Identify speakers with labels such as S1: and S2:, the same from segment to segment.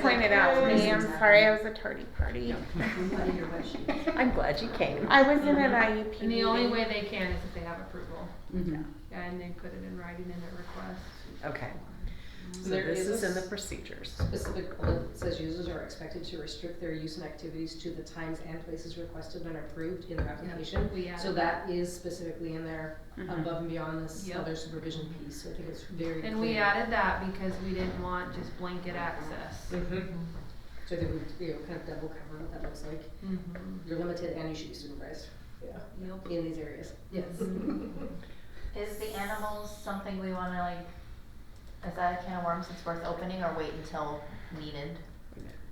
S1: pointed out to me. I'm sorry, I was a tardy party.
S2: I'm glad you came.
S1: I was in an IUP.
S3: And the only
S1: meeting.
S3: way they can is if they have approval,
S2: Mhm.
S3: and they put it in writing in their request.
S2: Okay, so
S4: There
S2: this is
S4: a
S2: in the procedures.
S4: Specific bullet that says users are expected to restrict their use and activities to the times and places requested and approved in their application.
S3: We added
S4: So that is specifically in there
S2: Mhm.
S4: above and beyond this
S3: Mm-hmm. Yep.
S4: other supervision piece, so I think it's very clear.
S3: And we added that because we didn't want just blanket access.
S5: Mm-hmm.
S4: Mhm. So I think we, you know, kind of double cover what that looks like.
S3: Mhm.
S4: You're limited and you should be supervised. Yeah.
S3: Yep. Um,
S4: In these areas. Yes.
S5: Is the animals something we wanna like, is that a can of worms that's worth opening or wait until needed?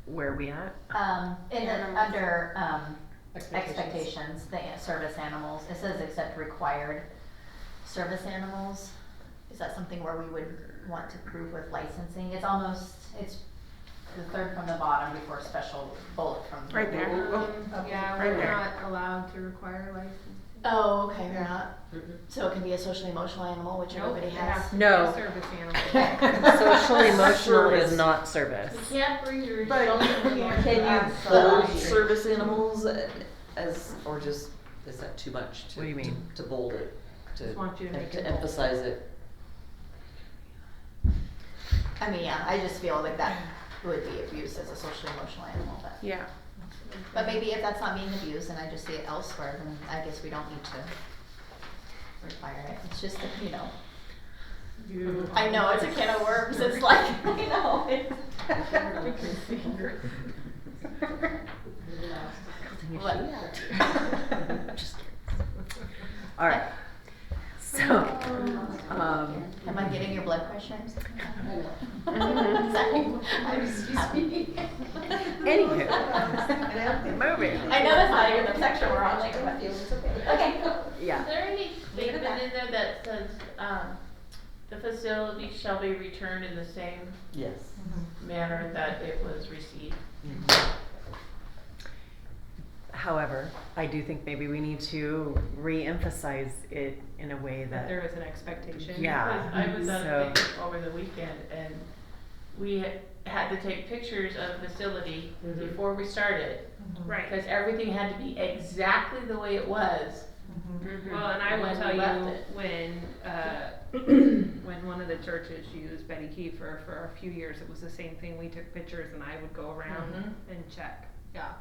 S2: Where are we at?
S5: Um, in the,
S1: Animals.
S5: under, um,
S4: Expectations.
S5: expectations, the a- service animals, it says except required service animals. Is that something where we would want to prove with licensing? It's almost, it's the third from the bottom before special bullet from.
S1: Right there.
S3: Um, Yeah,
S1: Right
S3: we're
S1: there.
S3: not allowed to require license.
S5: Oh, okay, you're not,
S4: Mhm.
S5: so it can be a social emotional animal, which
S3: Nope,
S5: everybody
S3: it
S5: has.
S3: has to be
S2: No.
S3: a Service animal.
S2: Social emotional is not service.
S3: Can't bring your.
S6: But
S3: children along.
S6: can you bold
S5: Absolutely.
S6: service animals as, or just, is that too much to?
S2: What do you mean?
S6: To bold it, to,
S3: Just want you to make it
S6: to
S3: bold.
S6: emphasize it.
S5: I mean, yeah, I just feel like that would be abused as a social emotional animal, but.
S1: Yeah.
S5: But maybe if that's not being abused and I just see it elsewhere, then I guess we don't need to require it. It's just, that, you know,
S3: You-
S5: I know it's a can of worms. It's like, I know. it's-
S3: We can finger.
S5: What?
S2: Just kidding. All right, so, um,
S5: Am I getting your blood pressure? I'm sorry.
S1: Mhm.
S5: Sorry. I'm just happy.
S2: anywho, moving.
S5: I know that's not even the section we're on later, but okay.
S2: Yeah,
S7: Is there any
S5: Leave it at
S7: statement in there that says, um, the facility shall be returned in the same
S6: Yes.
S7: manner that it was received?
S2: however, I do think maybe we need to re-emphasize it in a way
S7: That
S2: that,
S7: there is an expectation?
S2: Yeah,
S7: Because I was at
S2: so-
S7: a picnic over the weekend and we ha- had to take pictures of the facility
S2: Mm-hmm.
S4: Mhm.
S7: before we started.
S3: Right.
S7: Because everything had to be exactly the way it was.
S2: Mm-hmm.
S3: Well, and I
S7: When
S3: will
S7: we
S3: tell
S7: left
S3: you
S7: it.
S3: when, uh, when one of the churches used Betty Kiefer for a few years, it was the same thing. We took pictures and I would go around
S7: Mhm.
S3: and check. Yeah.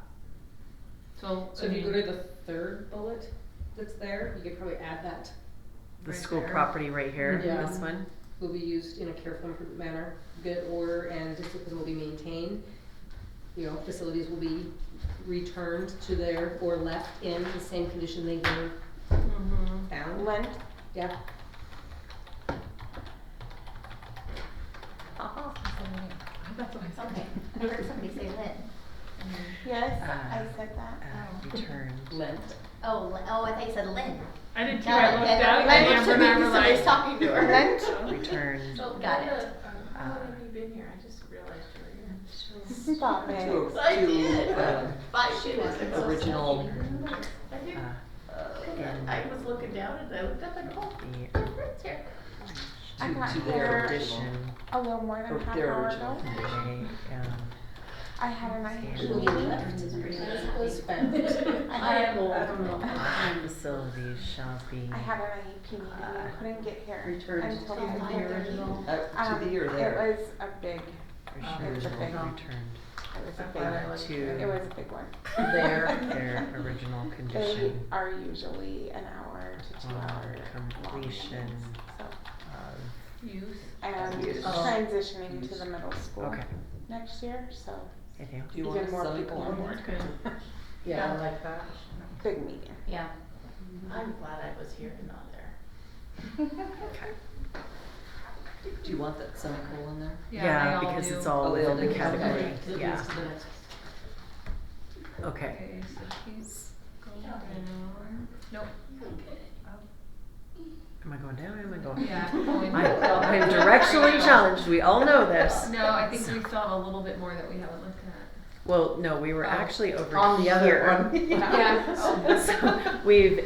S3: So,
S4: So
S3: I
S4: if you go
S3: mean,
S4: to the third bullet that's there, you could probably add that,
S2: the
S3: right
S2: school
S3: there.
S2: property right here,
S4: Yeah.
S2: this one.
S4: will be used in a careful and prudent manner, good order and discipline will be maintained. You know, facilities will be returned to their, or left in the same condition they were
S3: Mhm.
S4: found,
S1: Lynn?
S4: yeah.
S5: Okay. I heard somebody say Lynn.
S1: Yes,
S2: Uh,
S1: I said
S2: Uh,
S1: that.
S2: returned.
S4: Lent.
S5: Oh, Lynn- oh, I thought you said Lynn.
S3: I did too.
S5: Now
S3: I
S5: that-
S3: looked
S5: and
S3: up
S5: I
S3: and
S5: looked
S3: Amber
S5: at
S3: and
S5: me
S3: I were
S5: because I
S3: like,
S5: was talking to her.
S2: Returned.
S7: So
S5: Got
S7: what,
S5: it.
S7: uh, How long have you been here? I just realized you were here.
S1: Stop
S6: To,
S1: it.
S6: to,
S7: I did.
S6: uh,
S7: Five years.
S6: original,
S7: I do.
S2: uh, in
S7: I was looking down and I looked up and oh,
S2: the-
S7: my friend's here.
S1: I
S6: to,
S1: got
S6: to
S1: here
S6: their original,
S2: Addition,
S1: A little more
S6: or
S2: Oh,
S1: than half
S6: their
S1: hour
S6: original
S1: ago.
S6: condition.
S2: they, um,
S1: I had an IUP
S4: Will be
S1: meeting.
S4: left as was found.
S1: I am old.
S4: I don't know.
S2: Facilities shall be.
S1: I had an IEP meeting and I couldn't get here
S6: Returned
S1: until
S6: to
S1: five
S6: the
S1: thirty.
S6: original, uh,
S1: Um,
S6: to the or their.
S1: It was a big,
S7: Uh,
S2: Returned,
S1: It's a big one.
S2: returned
S1: it was a big,
S7: Okay.
S1: one.
S2: uh,
S1: it
S2: to
S1: was a big one.
S2: their, their original
S1: They
S2: condition
S1: are usually an hour to two
S2: On
S1: hour long
S2: completion.
S1: meetings, so.
S2: of,
S3: use.
S1: And
S6: Use.
S1: transitioning to
S6: Use.
S1: the middle school
S2: okay,
S1: next year, so
S2: anything else?
S6: Do you
S1: even
S6: want
S1: more
S6: some
S1: people
S6: more?
S1: on board.
S4: Yeah, I like that.
S1: big meeting.
S5: Yeah.
S7: I'm glad I was here and not there.
S6: Do you want that semicolon there?
S3: Yeah, they all
S2: because
S3: do.
S2: it's all
S6: Oh, they all
S2: within the
S6: do.
S2: category,
S6: Okay.
S2: yeah,
S4: To the next.
S2: okay.
S3: Okay, so she's going down. Nope.
S2: Am I going down or am I going?
S3: Yeah. going
S2: I,
S3: down.
S2: I'm directionally challenged, we all know this.
S3: No, I think we still have a little bit more that we haven't looked at.
S2: Well, no, we were
S3: Oh.
S2: actually over
S4: On the other
S2: here.
S4: one.
S3: Yeah.
S4: Oh,
S2: So we've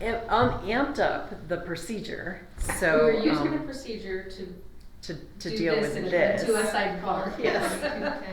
S2: am- um, amped up the procedure, so.
S4: We were using
S2: um,
S4: the procedure to
S8: to, to
S3: Do
S8: deal
S3: this
S8: with
S3: and
S8: this.
S3: Do a sidebar, yes.
S4: Okay.